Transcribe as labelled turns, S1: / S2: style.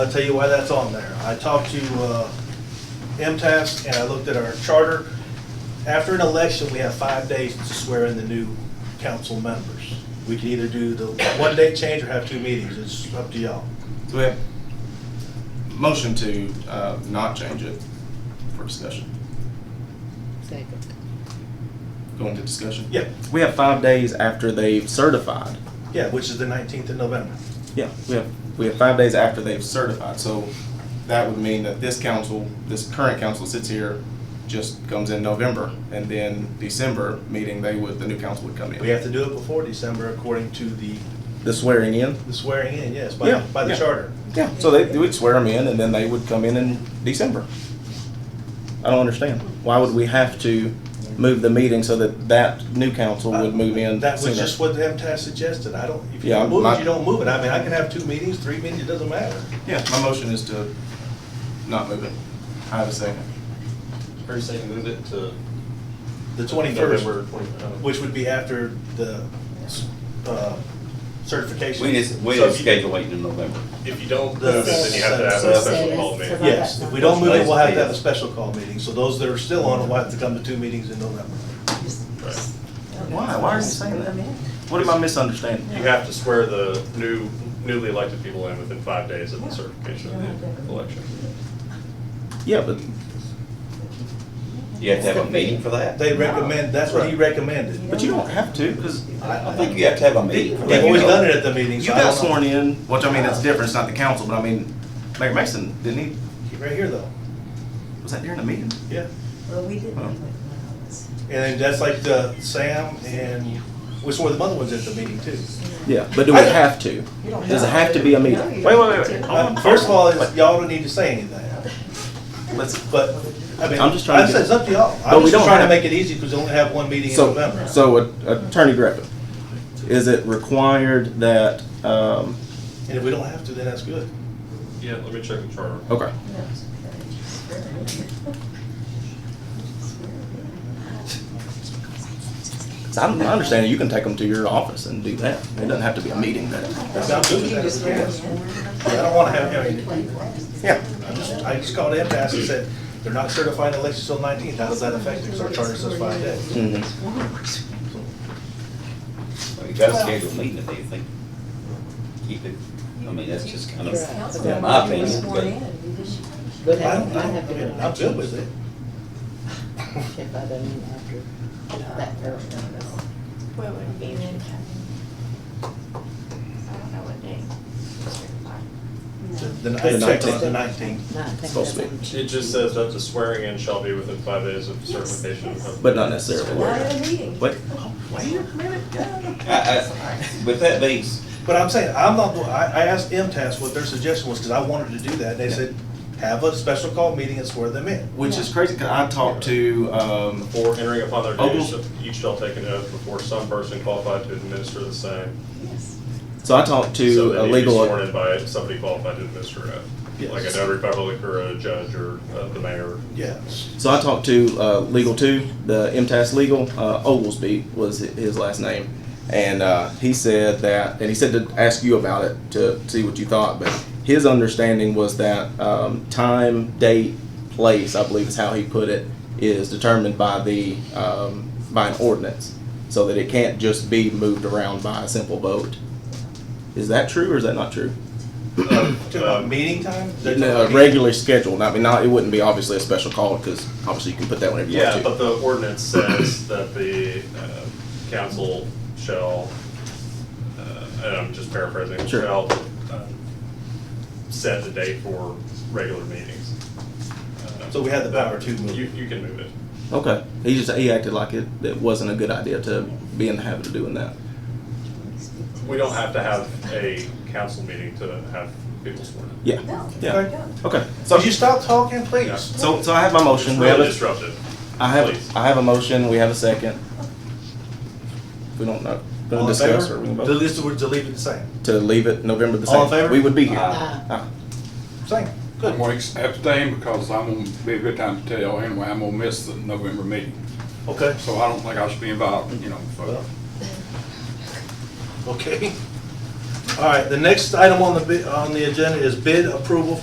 S1: I'll tell you why that's on there. I talked to uh, MTS and I looked at our charter. After an election, we have five days to swear in the new council members. We can either do the one-day change or have two meetings. It's up to y'all.
S2: Do we have motion to uh, not change it for discussion?
S3: Second.
S2: Go into discussion?
S1: Yeah,
S4: We have five days after they've certified.
S1: yeah, which is the 19th of November.
S4: Yeah, we have.
S2: We have five days after they've certified, so that would mean that this council, this current council sits here, just comes in November, and then December meeting, they would, the new council would come in.
S1: We have to do it before December according to the
S4: The swearing in?
S1: the swearing in, yes, by,
S4: Yeah,
S1: by the
S2: yeah.
S1: charter.
S4: Yeah. So they, they would swear them in and then they would come in in December. I don't understand. Why would we have to move the meeting so that that new council would move in
S1: That was
S4: sooner?
S1: just what MTS suggested. I don't, if you
S4: Yeah,
S1: don't move
S4: my-
S1: it, you don't move it. I mean, I can have two meetings, three meetings, it doesn't matter.
S2: Yeah, my motion is to not move it. I have a second.
S5: Are saying move it to?
S1: The 21st.
S5: November oh. 21st.
S1: Which would be after the uh, certification.
S6: We just, we
S5: So
S6: just
S5: if you-
S6: schedule waiting in November.
S5: If you don't move
S1: The-
S5: it, then you have to have a
S1: Yes.
S5: special call meeting.
S1: Yes, if we don't move it, we'll have to have a special call meeting, so those that are still on it will have to come to two meetings in November.
S4: Why? Why are you saying that? What am I misunderstanding?
S5: You have to swear the new, newly elected people in within five days of the certification of the election.
S4: Yeah, but
S6: You have to have a meeting for that?
S1: They recommend, that's what he recommended.
S4: but you don't have to because
S6: I think you have to have a meeting for that.
S1: They've always done it at the meetings.
S4: you
S1: so I
S4: got
S1: don't know.
S4: sworn in. Which I mean, that's different. It's not the council, but I mean, Mayor Mason didn't
S1: Right here, though,
S4: he? Was that during the meeting?
S1: yeah.
S3: Well, we didn't.
S4: Huh.
S1: And then that's like the Sam and, we swore the other ones at the meeting, too.
S4: Yeah, but do we have to? Does it have to be a meeting?
S3: Wait, wait, wait.
S4: Oh.
S1: Uh, First of all, is y'all don't need to say anything,
S4: Let's,
S1: but, I mean,
S4: I'm just trying to
S1: I said
S4: get-
S1: it's up to y'all.
S4: But
S1: I'm
S4: we
S1: just
S4: don't
S1: trying to
S4: have-
S1: make it easy, because we only have one meeting in
S4: so,
S1: November.
S4: so uh, Attorney Griffin, is it required that, um,
S1: And if we don't have to, then that's good.
S5: Yeah, let me check the charter.
S4: okay. So I'm understanding you can take them to your office and do that. It doesn't have to be a meeting that,
S1: That's not good. That's- I don't wanna have, him.
S4: yeah.
S1: I just, I just called MTS and said, they're not certifying elections till nineteenth, how does that affect it? Because our charter says five days.
S6: Mm-hmm.
S4: Mhm.
S6: You gotta schedule a meeting if they think, keep it, I mean, that's just kind of, my opinion, but-
S1: I
S3: But
S1: don't, I don't, I'm good with it.
S3: If I done after that, no,
S7: What would be the time? I don't know what day.
S1: Then I checked on the nineteenth.
S3: no. Not
S4: Supposed to be.
S5: It just says that the swearing in shall be within five days of certification. of-
S4: But not necessarily.
S7: Not at a meeting.
S4: What?
S6: I, I, with that being, s-
S1: But I'm saying, I'm not, I, I asked MTS what their suggestion was, because I wanted to do that, they said, have a special call meeting and swear them in.
S2: Which is crazy, 'cause I talked to, um,
S5: Before entering upon their
S4: Oh,
S5: duties,
S2: Ogle.
S5: each shall take an oath before some person qualified to administer the same.
S4: So I talked
S5: So
S4: to
S5: they
S4: a
S5: need be
S4: legal.
S5: Sworn in by somebody qualified to administer it,
S1: Yes.
S5: like a notary public or a judge or uh, the mayor.
S1: Yes.
S4: So I talked to uh, Legal Two, the MTS Legal. Uh, Oglesby was hi- his last name, and uh, he said that, and he said to ask you about it to see what you thought. But his understanding was that um, time, date, place, I believe is how he put it, is determined by the um, by an ordinance, so that it can't just be moved around by a simple vote. Is that true or is that not true?
S1: To a meeting time? They're
S4: No,
S1: talking-
S4: regularly scheduled. I mean, not it wouldn't be obviously a special call because obviously you can put that whenever you
S5: Yeah,
S4: want to.
S5: but the ordinance says that the uh, council shall, uh, and I'm just paraphrasing,
S4: Sure.
S5: shall uh, set the date for regular meetings. Uh,
S1: So we had the power to move.
S5: You, you can move it.
S4: Okay. He just he acted like it, it wasn't a good idea to be in the habit of doing that.
S5: We don't have to have a council meeting to have people sworn in.
S4: Yeah.
S1: Okay.
S4: Yeah. Okay. So
S1: Would you stop talking, please?
S4: so so I have my motion.
S5: It's
S4: We have
S5: really
S4: a,
S5: disruptive.
S4: I have
S5: Please.
S4: I have a motion. We have a second. We don't know. Going
S1: All
S4: to
S1: in
S4: discuss
S1: favor?
S4: or we can
S1: To
S4: vote?
S1: leave- to leave it the same.
S4: to leave it November the
S1: All in
S4: second.
S1: favor?
S4: We would be here.
S5: Uh,
S6: Aye.
S4: Aye.
S1: Same,
S8: I'm
S1: good,
S8: gonna abstain because I'm gonna be a good time to tell anyway, I'm gonna miss the November meeting.
S1: okay,
S8: So I don't think I should be involved, you know, so.
S1: okay. All right, the next item on the, bi- on the agenda is bid approval